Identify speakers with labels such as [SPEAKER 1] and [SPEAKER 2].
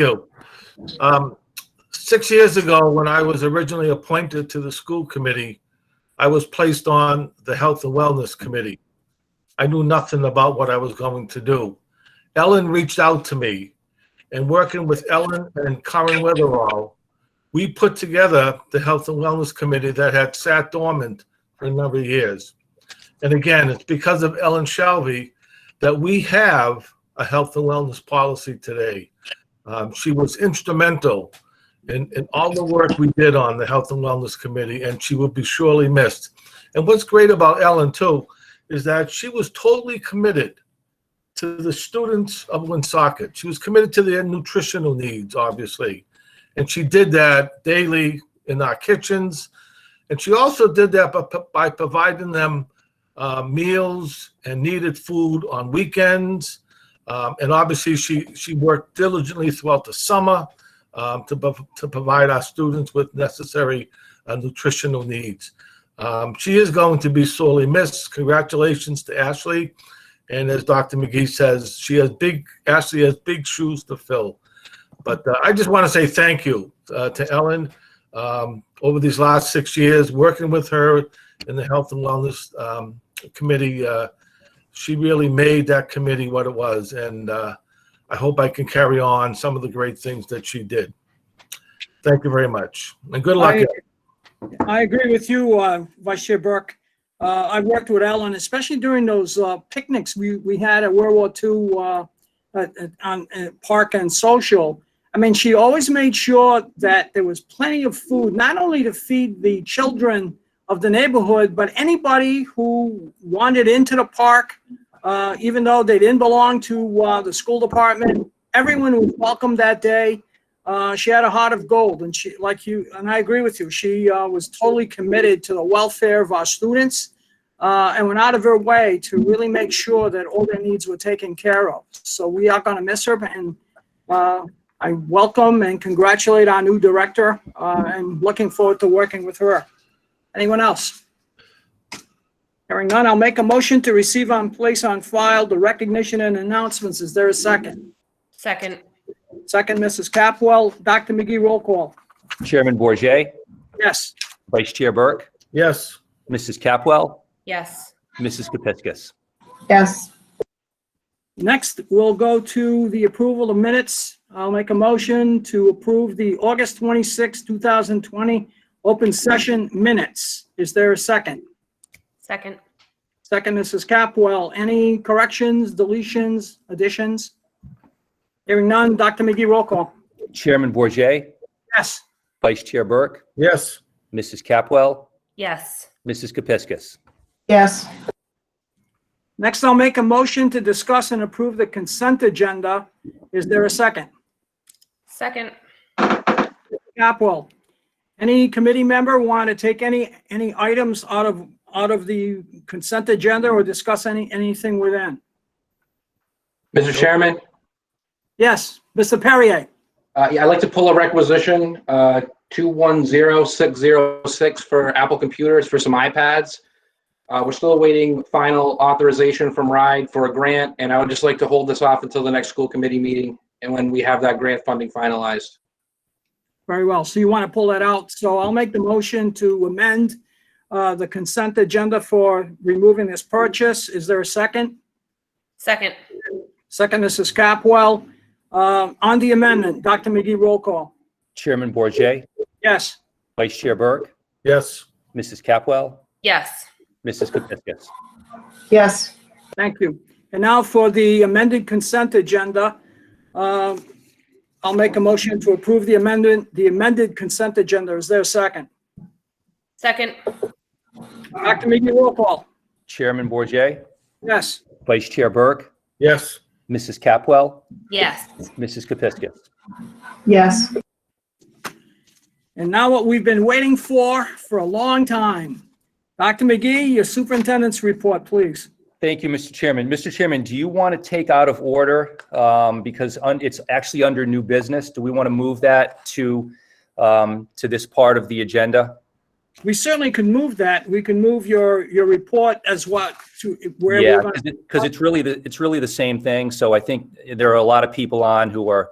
[SPEAKER 1] you. Um, Six years ago, when I was originally appointed to the school committee, I was placed on the Health and Wellness Committee. I knew nothing about what I was going to do. Ellen reached out to me, and working with Ellen and Karen Weatherall, we put together the Health and Wellness Committee that had sat dormant for a number of years. And again, it's because of Ellen Shelby that we have a health and wellness policy today. Um, she was instrumental in, in all the work we did on the Health and Wellness Committee, and she will be surely missed. And what's great about Ellen, too, is that she was totally committed to the students of Woonsocket. She was committed to their nutritional needs, obviously. And she did that daily in our kitchens. And she also did that by, by providing them uh, meals and needed food on weekends. Um, and obviously, she, she worked diligently throughout the summer um, to, prov- to provide our students with necessary uh, nutritional needs. Um, she is going to be sorely missed. Congratulations to Ashley. And as Dr. McGee says, she has big, Ashley has big shoes to fill. But uh, I just want to say thank you uh, to Ellen um, over these last six years, working with her in the Health and Wellness um, Committee. Uh, she really made that committee what it was. And uh, I hope I can carry on some of the great things that she did. Thank you very much. And good luck.
[SPEAKER 2] I I agree with you, uh, Vice Chair Burke. Uh, I worked with Ellen, especially during those uh, picnics we, we had at World War II uh, at- at- on at Park and Social. I mean, she always made sure that there was plenty of food, not only to feed the children of the neighborhood, but anybody who wandered into the park, uh, even though they didn't belong to uh, the school department. Everyone was welcome that day. Uh, she had a heart of gold, and she, like you, and I agree with you, she uh, was totally committed to the welfare of our students uh, and went out of her way to really make sure that all their needs were taken care of. So we are going to miss her, and uh, I welcome and congratulate our new director uh, and looking forward to working with her. Anyone else? Hearing none, I'll make a motion to receive and place on file the recognition and announcements. Is there a second?
[SPEAKER 3] Second,
[SPEAKER 2] Second, Mrs. Capwell. Dr. McGee, roll call.
[SPEAKER 4] Chairman Bourget,
[SPEAKER 2] Yes.
[SPEAKER 4] Vice Chair Burke,
[SPEAKER 1] Yes.
[SPEAKER 4] Mrs. Capwell,
[SPEAKER 3] yes.
[SPEAKER 4] Mrs. Kepiscus.
[SPEAKER 5] Yes,
[SPEAKER 2] Next, we'll go to the approval of minutes. I'll make a motion to approve the August 26, 2020 open session minutes. Is there a second?
[SPEAKER 3] Second,
[SPEAKER 2] Second, Mrs. Capwell. Any corrections, deletions, additions? Hearing none. Dr. McGee, roll call.
[SPEAKER 4] Chairman Bourget,
[SPEAKER 2] Yes.
[SPEAKER 4] Vice Chair Burke,
[SPEAKER 1] Yes.
[SPEAKER 4] Mrs. Capwell,
[SPEAKER 3] yes.
[SPEAKER 4] Mrs. Kepiscus.
[SPEAKER 5] yes,
[SPEAKER 2] Next, I'll make a motion to discuss and approve the consent agenda. Is there a second?
[SPEAKER 3] Second,
[SPEAKER 2] Capwell, any committee member want to take any, any items out of, out of the consent agenda or discuss any, anything within?
[SPEAKER 6] Mr. Chairman,
[SPEAKER 2] Yes, Mr. Perrier,
[SPEAKER 6] uh, yeah, I'd like to pull a requisition, uh, 210606 for Apple Computers for some iPads. Uh, We're still awaiting final authorization from RIDE for a grant, and I would just like to hold this off until the next school committee meeting and when we have that grant funding finalized.
[SPEAKER 2] very well. So you want to pull that out. So I'll make the motion to amend uh, the consent agenda for removing this purchase. Is there a second?
[SPEAKER 3] second,
[SPEAKER 2] Second, Mrs. Capwell. Uh, On the amendment, Dr. McGee, roll call.
[SPEAKER 4] Chairman Bourget,
[SPEAKER 2] Yes.
[SPEAKER 4] Vice Chair Burke,
[SPEAKER 1] Yes.
[SPEAKER 4] Mrs. Capwell,
[SPEAKER 3] yes.
[SPEAKER 4] Mrs. Kepiscus.
[SPEAKER 5] yes,
[SPEAKER 2] Thank you. And now for the amended consent agenda. Uh, I'll make a motion to approve the amendment, the amended consent agenda. Is there a second?
[SPEAKER 3] Second,
[SPEAKER 2] Dr. McGee, roll call.
[SPEAKER 4] Chairman Bourget,
[SPEAKER 2] Yes.
[SPEAKER 4] Vice Chair Burke,
[SPEAKER 1] Yes.
[SPEAKER 4] Mrs. Capwell,
[SPEAKER 3] yes.
[SPEAKER 4] Mrs. Kepiscus.
[SPEAKER 5] yes,
[SPEAKER 2] And now what we've been waiting for, for a long time. Dr. McGee, your superintendent's report, please.
[SPEAKER 4] Thank you, Mr. Chairman. Mr. Chairman, do you want to take out of order, um, because un- it's actually under new business? Do we want to move that to, um, to this part of the agenda?
[SPEAKER 2] We certainly can move that. We can move your, your report as what to wherever.
[SPEAKER 4] Yeah,
[SPEAKER 2] you want.
[SPEAKER 4] because it's really, the it's really the same thing. So I think there are a lot of people on who are